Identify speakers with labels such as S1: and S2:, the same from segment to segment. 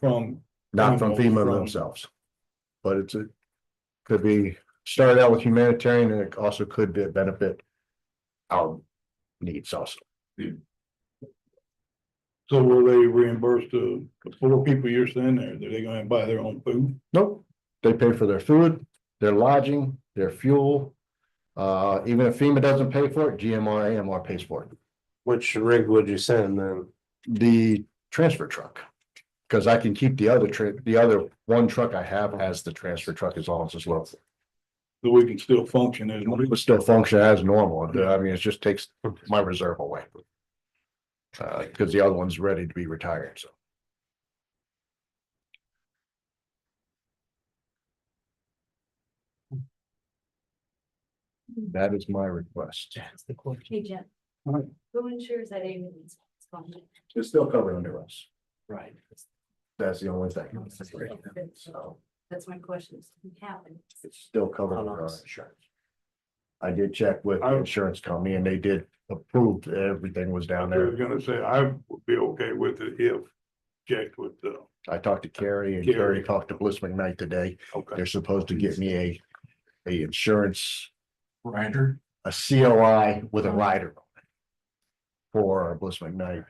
S1: from,
S2: not from
S1: Animals
S2: FEMA
S1: from-
S2: themselves. But it's a, could be, started out with humanitarian and it also could be benefit our needs also.
S1: so will they reimburse the, the four people you're sending there? Are they gonna buy their own food?
S2: Nope, they pay for their food, their lodging, their fuel. Uh, even if FEMA doesn't pay for it, GMR, AMR pays for it.
S3: Which rig would you send then?
S2: The transfer truck. Cause I can keep the other trip, the other one truck I have as the transfer truck as long as it's low.
S1: So we can still function as,
S2: It would still function as normal. uh, I mean, it just takes my reserve away. Uh, cause the other one's ready to be retired, so. That is my request.
S4: Hey, Jim.
S1: Alright.
S4: Who ensures that ambulance? is on it?
S2: It's still covered under us.
S3: Right.
S2: That's the only thing. So
S4: That's my question. It's happened.
S2: it's still covered under our insurance. I did check with the insurance company and they did approve, that everything was
S1: I
S2: down
S1: was
S2: there.
S1: gonna say, I would be okay with it if checked with uh, the,
S2: I talked to Carrie and
S1: Carrie.
S2: Carrie talked to Bliss McKnight today.
S1: okay.
S2: They're supposed to get me a, a insurance,
S1: Ranger?
S2: a COI with a rider. on it For Bliss McKnight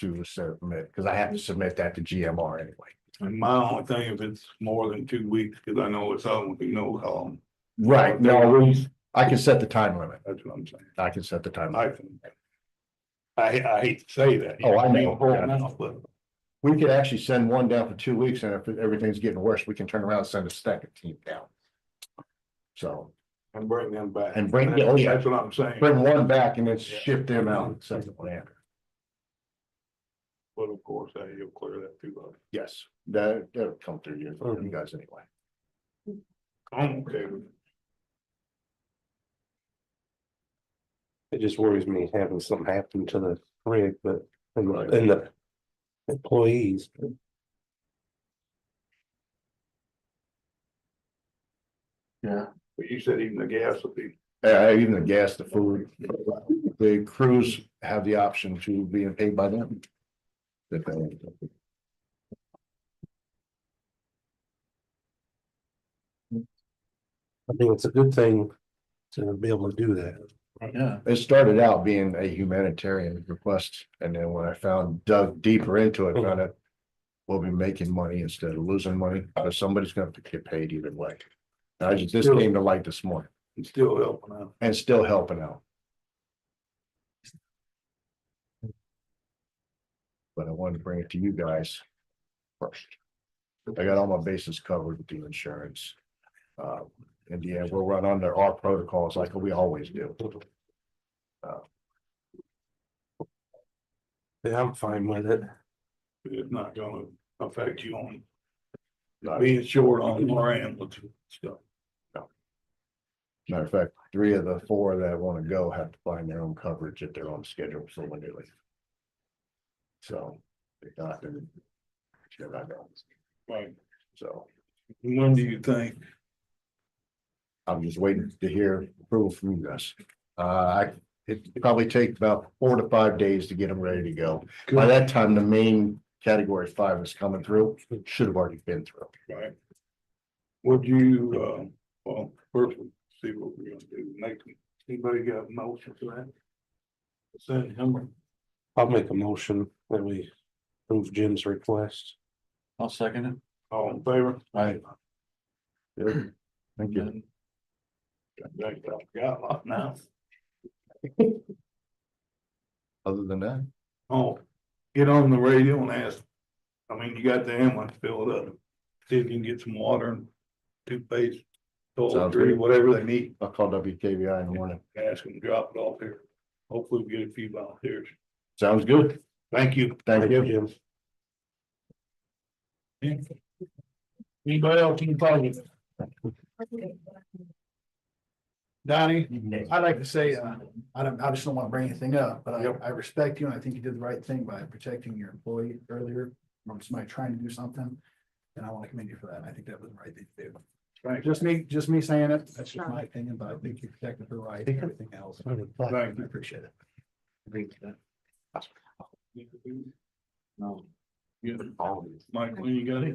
S2: to submit, because I have to submit that to GMR anyway.
S1: And my only thing, if it's more than two weeks, cause I know it's all, we know, um,
S2: Right, no, we- I can set the time limit.
S1: that's what I'm saying.
S2: I can set the time. limit.
S1: I can. I, I hate to say that.
S2: Oh, I know.
S1: But
S2: We could actually send one down for two weeks and if everything's getting worse, we can turn around and send a second team down. So
S1: And bring them back.
S2: And bring- oh, yeah.
S1: That's what I'm saying.
S2: bring one back and then shift them out and send them down.
S1: But of course, uh, you'll clear that through us.
S2: Yes, that, that'll come through you, you guys anyway.
S1: I'm okay with it.
S3: It just worries me having something happen to the rig, but and the- and the employees.
S1: But you said even the gas would be,
S2: Uh, even the gas, the food, the crews have the option to being paid by them. If they-
S3: I think it's a good thing to be able to do that.
S2: It started out being a humanitarian request, and then when I found dug deeper into it, found out. We'll be making money instead of losing money, but somebody's gonna have to get paid either way. And I just, this came to light this morning
S1: it's still helping out.
S2: and still helping out. But I wanted to bring it to you guys first. I got all my bases covered with the insurance. Uh, in the end, we'll run under our protocols like we always do.
S3: Yeah, I'm fine with it.
S1: It's not gonna affect you on being short on more ambulance stuff.
S2: Matter of fact, three of the four that want to go have to find their own coverage at their own schedule for when they leave. So they got them. Sure, I know.
S1: Right.
S2: So
S1: When do you think?
S2: I'm just waiting to hear approval from you guys. Uh, I, it probably take about four to five days to get them ready to go. By that time, the main category five is coming through, should have already been through.
S1: Right. Would you, uh, well, first we'll see what we're gonna do, make, anybody got a motion for that? Send him,
S3: I'll make a motion that we approve Jim's request.
S5: I'll second it.
S1: all in favor?
S2: Right. Thank you.
S1: Got a lot now.
S2: Other than that,
S1: Oh, get on the radio and ask. I mean, you got the ambulance filled up. See if you can get some water and toothpaste, toiletry,
S2: good.
S1: whatever they need.
S2: I'll call WKBI in the morning.
S1: Ask them, to drop it off here. Hopefully we get a few volunteers.
S2: Sounds good.
S1: Thank you.
S2: Thank you.
S3: Jim.
S1: Anybody else can call you?
S6: Donnie, I'd like to say, uh, I don't, I just don't want to bring anything up, but I, I respect you and I think you did the right thing by protecting your employee earlier. From somebody trying to do something, and I want to commend you for that. I think that was the right thing to do.
S1: Thanks.
S6: Just me, just me saying it. That's just my opinion, but I think you protected her right and everything else. I
S1: Thank you.
S6: appreciate it.
S5: No.
S1: Yeah,
S3: Always.
S1: Mike, when you got it?